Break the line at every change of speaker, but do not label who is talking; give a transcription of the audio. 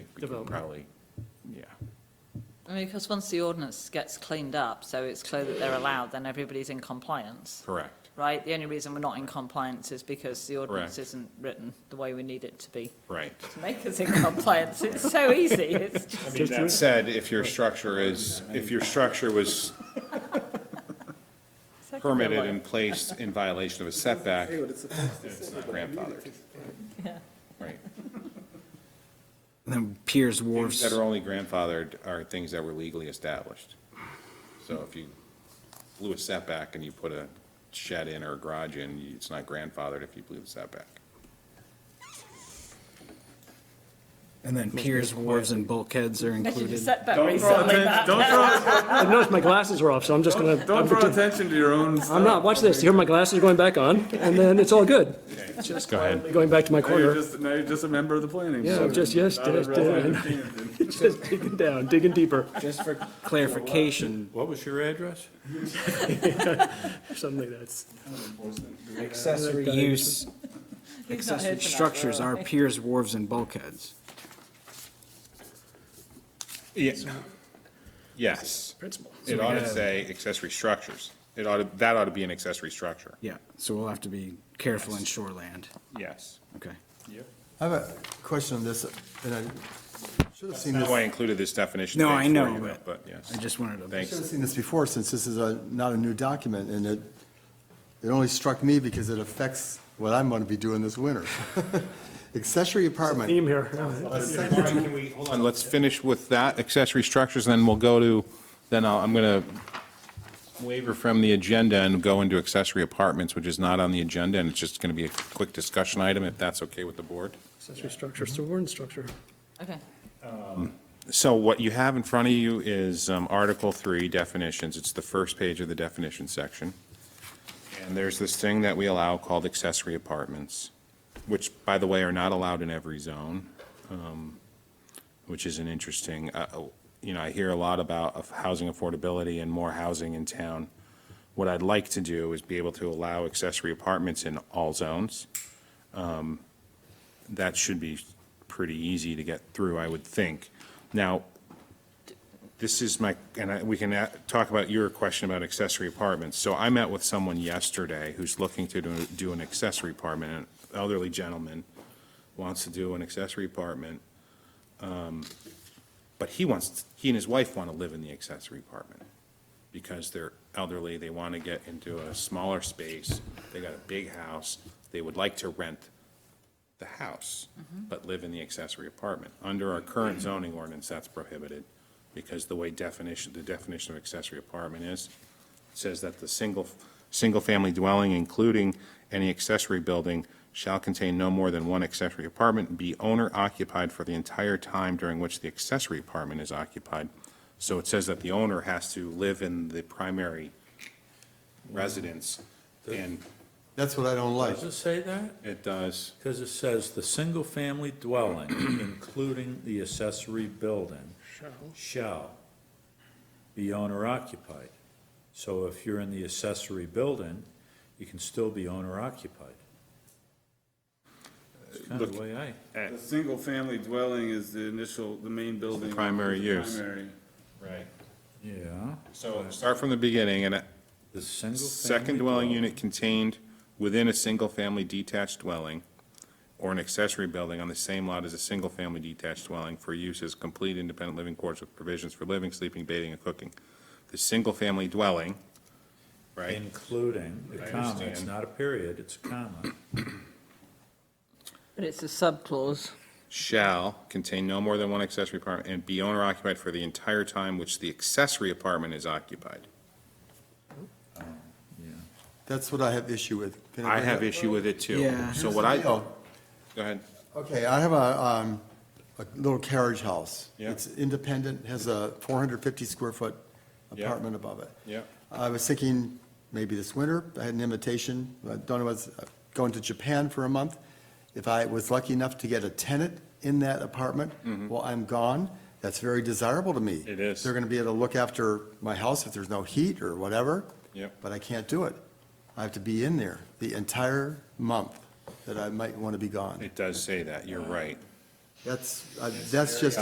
we could
Development.
probably, yeah.
I mean, because once the ordinance gets cleaned up, so it's clear that they're allowed, then everybody's in compliance,
Correct.
right? The only reason we're not in compliance is because the ordinance
Correct.
isn't written the way we need it to be
Right.
to make us in compliance. It's so easy. It's just,
Just
That
to-
said, if your structure is, if your structure was permitted and placed in violation of a setback, it's not grandfathered,
Yeah.
right?
Then Piers
Things
Wharf's,
that are only grandfathered are things that were legally established. So if you blew a setback and you put a shed in or a garage in, you- it's not grandfathered if you blew the setback.
and then Piers Wharfs and bulkheads are
I should have
included.
said that
Don't draw
recently.
attention, don't draw,
I've noticed my glasses are off, so I'm just gonna,
don't
I'm
draw
pretend-
attention to your own
I'm not, watch this, here my glasses are going back on, and then it's all good,
Just go ahead.
going back to my
Now you're
corner.
just, now you're just a member of the planning.
Yeah, I'm
board.
just, yes,
Not a
yes,
resident
yes.
of Camden.
Just digging down, digging deeper,
Just for clarification,
What was your address?
something that's,
uh, accessory use,
He's not here
accessory
tonight,
structures
we're all
are
right.
Piers Wharfs and bulkheads.
Yes. Yes.
principle.
It ought to say accessory structures. It ought to, that ought to be an accessory structure.
Yeah, so we'll have to be careful in shoreland.
Yes.
Okay.
I have a question on this, and I should have seen
That's
this,
why I
I
included this definition.
No,
page
I
for
know,
you,
but-
But yes.
I just wanted to.
Thanks.
should have seen this before, since this is a, not a new document, and it, it only struck me because it affects what I'm gonna be doing this winter. Accessory apartment,
Theme here.
Hold on, let's finish with that accessory structures, and then we'll go to, then I'll- I'm going to waiver from the agenda and go into accessory apartments, which is not on the agenda, and it's just going to be a quick discussion item, if that's okay with the board.
Accessory structure, so we're in structure.
Okay.
So what you have in front of you is um, Article 3 definitions. It's the first page of the definition section. And there's this thing that we allow called accessory apartments, which, by the way, are not allowed in every zone, um, which is an interesting, uh, uh, you know, I hear a lot about of housing affordability and more housing in town. What I'd like to do is be able to allow accessory apartments in all zones. Um, That should be pretty easy to get through, I would think. Now, this is my, and I- we can a- talk about your question about accessory apartments. So I met with someone yesterday who's looking to do- do an accessory apartment, an elderly gentleman wants to do an accessory apartment. um, But he wants, he and his wife want to live in the accessory apartment because they're elderly, they want to get into a smaller space, they got a big house, they would like to rent the house, but live in the accessory apartment. Under our current zoning ordinance, that's prohibited, because the way definition, the definition of accessory apartment is, says that the single, single-family dwelling, including any accessory building, shall contain no more than one accessory apartment, and be owner-occupied for the entire time during which the accessory apartment is occupied. So it says that the owner has to live in the primary residence, and
that's what I don't like.
Does it say that?
it does,
Because it says, "The single-family dwelling, including the accessory building, shall be owner-occupied." So if you're in the accessory building, you can still be owner-occupied. That's kind of the way I,
The single-family dwelling is the initial, the main building.
primary
is the
use.
Primary.
right?
yeah,
So start from the beginning, and
the single-family.
second dwelling unit contained within a single-family detached dwelling or an accessory building on the same lot as a single-family detached dwelling for use as complete independent living quarters with provisions for living, sleeping, bathing, and cooking. The single-family dwelling, right?
Including, the
I
comma, it's
understand.
not a period, it's a comma.
But it's a sub-clause.
shall contain no more than one accessory apartment and be owner occupied for the entire time which the accessory apartment is occupied.
That's what I have issue with. Can
I
bring
have
it-
issue with it too.
Yeah.
So what I,
Here's the
go
deal.
ahead.
Okay, I have a, um, a little carriage house.
Yeah.
It's independent, has a four hundred fifty square foot
Yeah.
apartment above it.
Yeah.
I was thinking, maybe this winter, I had an invitation, I don't know, I was going to Japan for a month. If I was lucky enough to get a tenant in that apartment while I'm gone, that's very desirable to me.
Mm-hmm. It is.
They're gonna be able to look after my house if there's no heat or whatever.
Yep.
But I can't do it. I have to be in there the entire month that I might wanna be gone.
It does say that, you're right.
uh, That's, I- that's just,